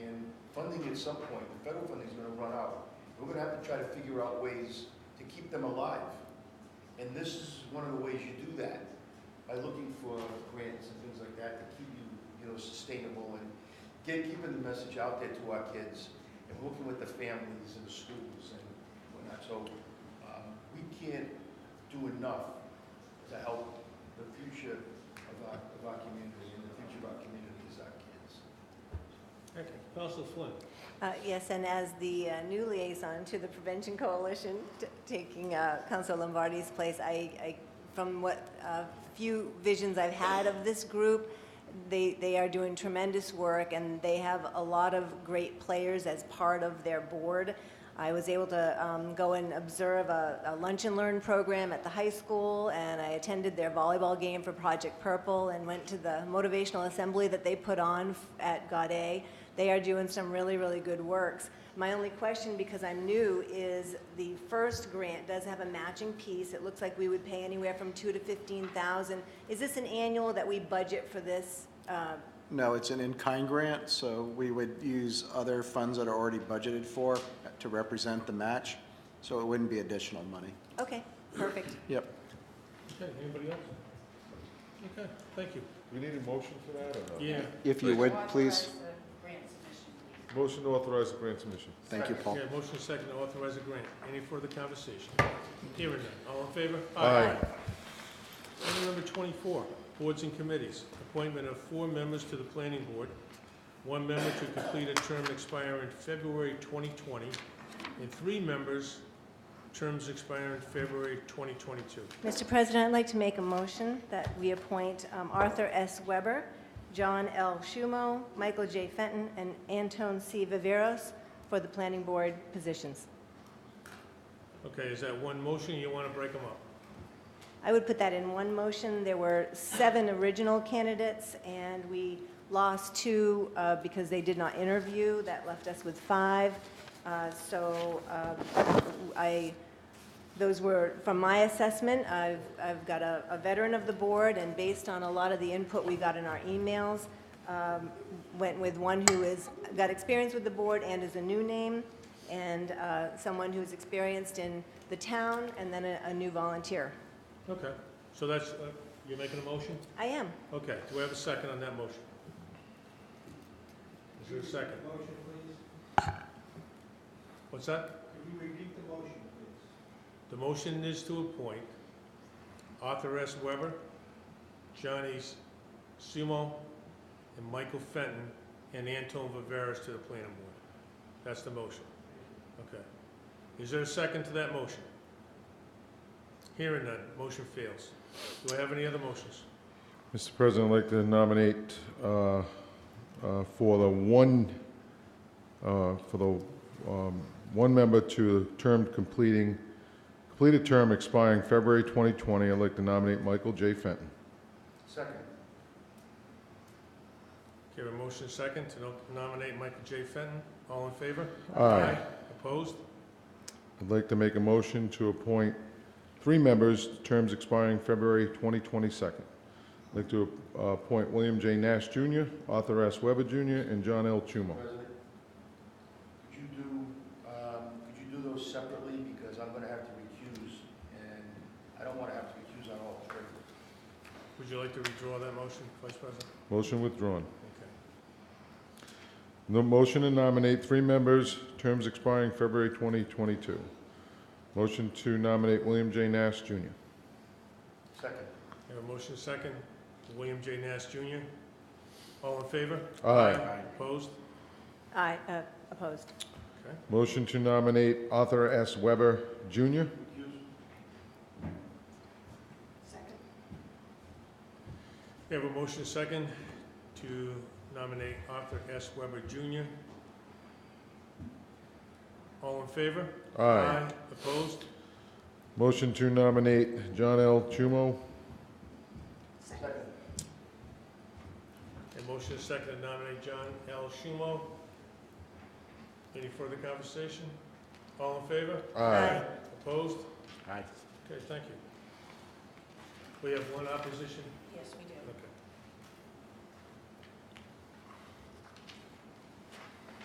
at some point, the federal funding's gonna run out. We're gonna have to try to figure out ways to keep them alive. And this is one of the ways you do that, by looking for grants and things like that to keep you, you know, sustainable and get, keeping the message out there to our kids and working with the families and the schools and whatnot. So, um, we can't do enough to help the future of our, of our community and the future of our community is our kids. Okay, Council Flynn. Uh, Yes, and as the uh, new liaison to the Prevention Coalition, t- taking uh, Council Lombardi's place, I, I- from what uh, few visions I've had of this group, they, they are doing tremendous work, and they have a lot of great players as part of their board. I was able to um, go and observe a a lunch and learn program at the high school, and I attended their volleyball game for Project Purple, and went to the motivational assembly that they put on f- at Gaudet. They are doing some really, really good works. My only question, because I'm new, is the first grant does have a matching piece. It looks like we would pay anywhere from two to 15,000. Is this an annual that we budget for this? uh, No, it's an in-kind grant, so we would use other funds that are already budgeted for to represent the match, so it wouldn't be additional money. Okay, perfect. Yep. Okay, anybody else? Okay, thank you. We need a motion for that or no? Yeah, If you would, please. Authorize the grant submission, please. Motion to authorize the grant submission. Thank you, Paul. yeah, motion second to authorize a grant. Any further conversation? Hearing none. All in favor? Item number 24, boards and committees. Appointment of four members to the planning board, one member to complete a term expiring February 2020, and three members, terms expiring February 2022. Mr. President, I'd like to make a motion that we appoint um, Arthur S. Weber, John L. Schumo, Michael J. Fenton, and Anton C. Viveros for the planning board positions. Okay, is that one motion, or you want to break them up? I would put that in one motion. There were seven original candidates, and we lost two uh, because they did not interview. That left us with five. Uh, So uh, I, those were, from my assessment, I've, I've got a a veteran of the board, and based on a lot of the input we got in our emails, um, went with one who is, got experience with the board and is a new name, and uh, someone who's experienced in the town, and then a a new volunteer. Okay, so that's, uh, you're making a motion? I am. Okay, do we have a second on that motion? Is there a second? Motion, please. What's that? Could you repeat the motion, please? The motion is to appoint Arthur S. Weber, Johnny Sumo, and Michael Fenton, and Anton Viveras to the planning board. That's the motion. Okay. Is there a second to that motion? Hearing none, motion fails. Do I have any other motions? Mr. President, I'd like to nominate uh, uh, for the one, uh, for the um, one member to the term completing, completed term expiring February 2020. I'd like to nominate Michael J. Fenton. Second, Okay, a motion second to no- nominate Michael J. Fenton. All in favor? Aye. Opposed? I'd like to make a motion to appoint three members, terms expiring February 2022. I'd like to uh, appoint William J. Nash Jr., Arthur S. Weber Jr., and John L. Chumo. President, could you do, um, could you do those separately, because I'm gonna have to recuse, and I don't wanna have to recuse on all three. Would you like to withdraw that motion, Vice President? Motion withdrawn. Okay. No motion to nominate three members, terms expiring February 2022. Motion to nominate William J. Nash Jr. Second, We have a motion second, to William J. Nash Jr. All in favor? Aye. Opposed? I uh, opposed. Okay. Motion to nominate Arthur S. Weber Jr. recuse? Second. We have a motion second to nominate Arthur S. Weber Jr. All in favor? Opposed? Motion to nominate John L. Chumo. Second. A motion second to nominate John L. Schumo. Any further conversation? All in favor? Aye. Opposed? Aye. Okay, thank you. We have one opposition? Yes, we do.